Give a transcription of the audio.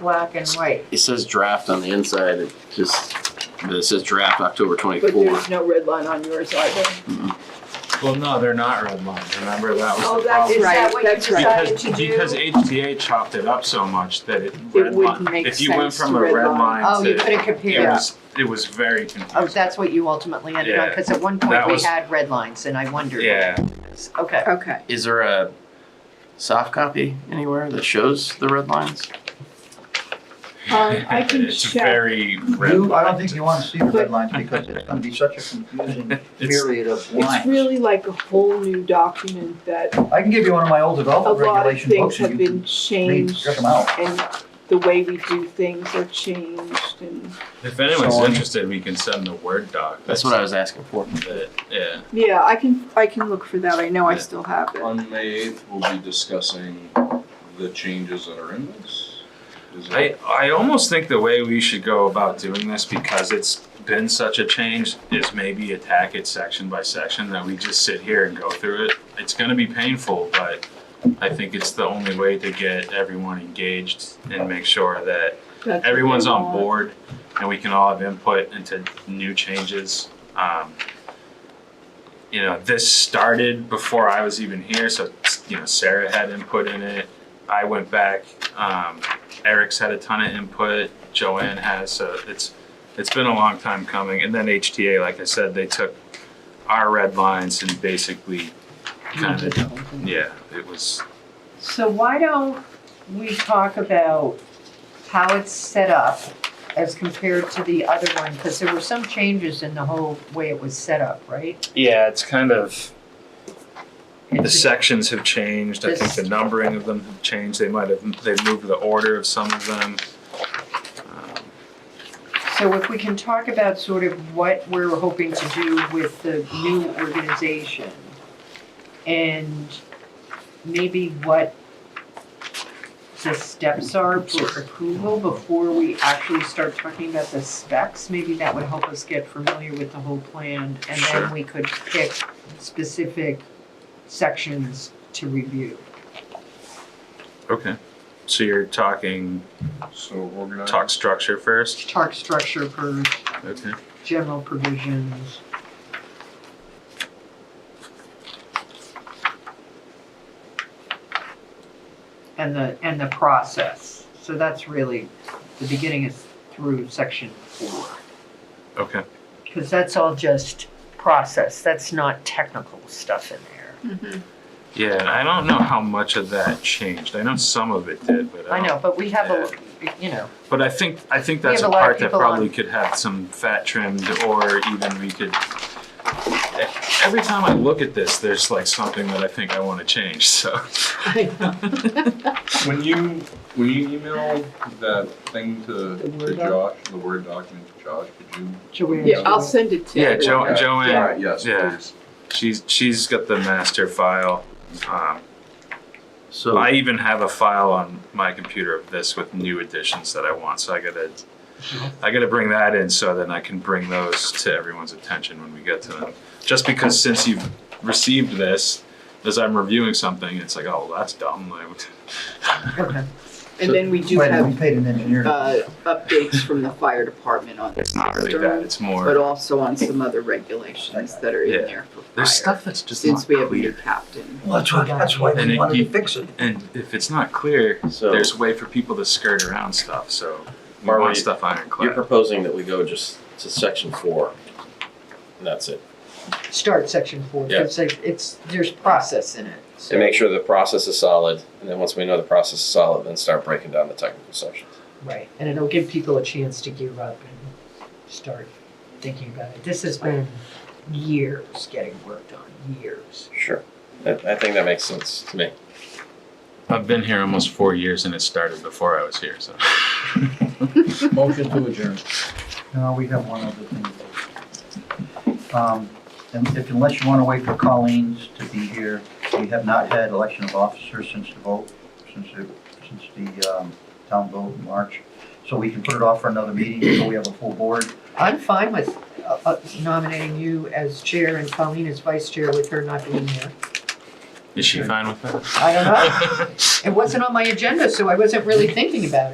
black and white. It says draft on the inside, it just, it says draft October But twenty-four. there's no red line on yours either. Well, no, they're not red line. Remember that was Oh, the that, problem. is that Right, what you that's right. decided to Because, do? because HTA chopped it up so much that it, red would line. make If you went sense from to a red red line. Oh, line you to, couldn't it compare. was, it was very Oh, confusing. that's what you ultimately ended on, Yeah. because at one That point we was- had red lines and I wondered. Yeah, Okay, Okay. Is there a soft copy anywhere that shows the red lines? Um, I can it's check. very red. You, I don't think line. you want to see the red lines because it's gonna be such a confusing myriad of It's lines. really like a whole new document that I can give you one of my old a development lot of regulation things books have and you been can read, changed check them out. and the way we do things are changed and, If anyone's So, um, interested, we can send the Word doc. That's what I was asking for. that- Yeah. yeah, I can, I can look for that. I know I Yeah. still have it. On May eighth, we'll be discussing the changes that are in this. Is that- I, I almost think the way we should go about doing this, because it's been such a change, is maybe attack it section by section, that we just sit here and go through it. It's gonna be painful, but I think it's the only way to get everyone engaged and make sure that That's what they everyone's on want. board and we can all have input into new changes. Um, you know, this started before I was even here, so, you know, Sarah had input in it. I went back, um, Eric's had a ton of input, Joanne has, so it's, it's been a long time coming. And then HTA, like I said, they took our red lines and basically kind of, yeah, it was, so why don't we talk about how it's set up as compared to the other one? Because there were some changes in the whole way it was set up, right? yeah, it's kind of, The It's- sections have changed, I think the This- numbering of them have changed, they might have, they've moved the order of some of them. Um, So if we can talk about sort of what we're hoping to do with the new organization and maybe what the steps are for approval before we actually start talking about the specs, maybe that would help us get familiar with the whole plan and Sure. then we could pick specific sections to review. Okay, so you're talking, So we're gonna. talk structure first, Tarp structure per okay? general provisions. And the, and the process. So that's really, the beginning is through section four. Okay, Because that's all just process. That's not technical stuff in there. yeah, and I don't know how much of that changed, I know some of it did, but I I don't. know, but we have a, you know, But I think, I think We that's a have a lot of part that people on- probably could have some fat trimmed, or even we could. Every time I look at this, there's like something that I think I wanna change, so. When you, when you email that thing to, The Word to Josh, the Word document to Josh, could you? Joanne. Yeah, I'll send it to you. Yeah, Jo- Yeah. Joanne. All right, yes, Yeah. please. She's she's got the master file. Um, So I even have a file on my computer of this with new additions that I want. So I gotta I gotta bring that in so then I can bring those to everyone's attention when we get to them. Just because since you've received this, as I'm reviewing something, it's like, oh, well, that's dumb. Like, Okay. And then we do Wait, we have, paid an engineer. uh, updates from the fire department on it's not really that. It's but more. also on some other regulations that are Yeah. in there for There's fire. stuff that's just not Since we have a new clear. captain. Well, that's why, that's why And we it wanted to keep- fix it. And if it's not clear, So- there's a way for people to skirt around stuff. So we Marley, want stuff you're ironclad. proposing that we go just to section four, and that's it. Start section four, Yeah. because it's, there's process in it. so- And make sure the process is solid, and then once we know the process is solid, then start breaking down the technical sections. Right, and it'll give people a chance to gear up and start thinking about it. This has been years getting worked on, years. Sure. I, I think that makes sense to me. I've been here almost four years and it started before I was here. So. Motion to adjourn. No, we have one other thing. Um, and if, unless you want to wait for Colleen's to be here, we have not had election of officers since the vote, since the, since the, um, town vote in March. So we can put it off for another meeting until we have a full board. I'm fine with uh, uh, nominating you as chair and Colleen as vice chair with her not being here. Is she fine with that? I don't know. It wasn't on my agenda, so I wasn't really thinking about it.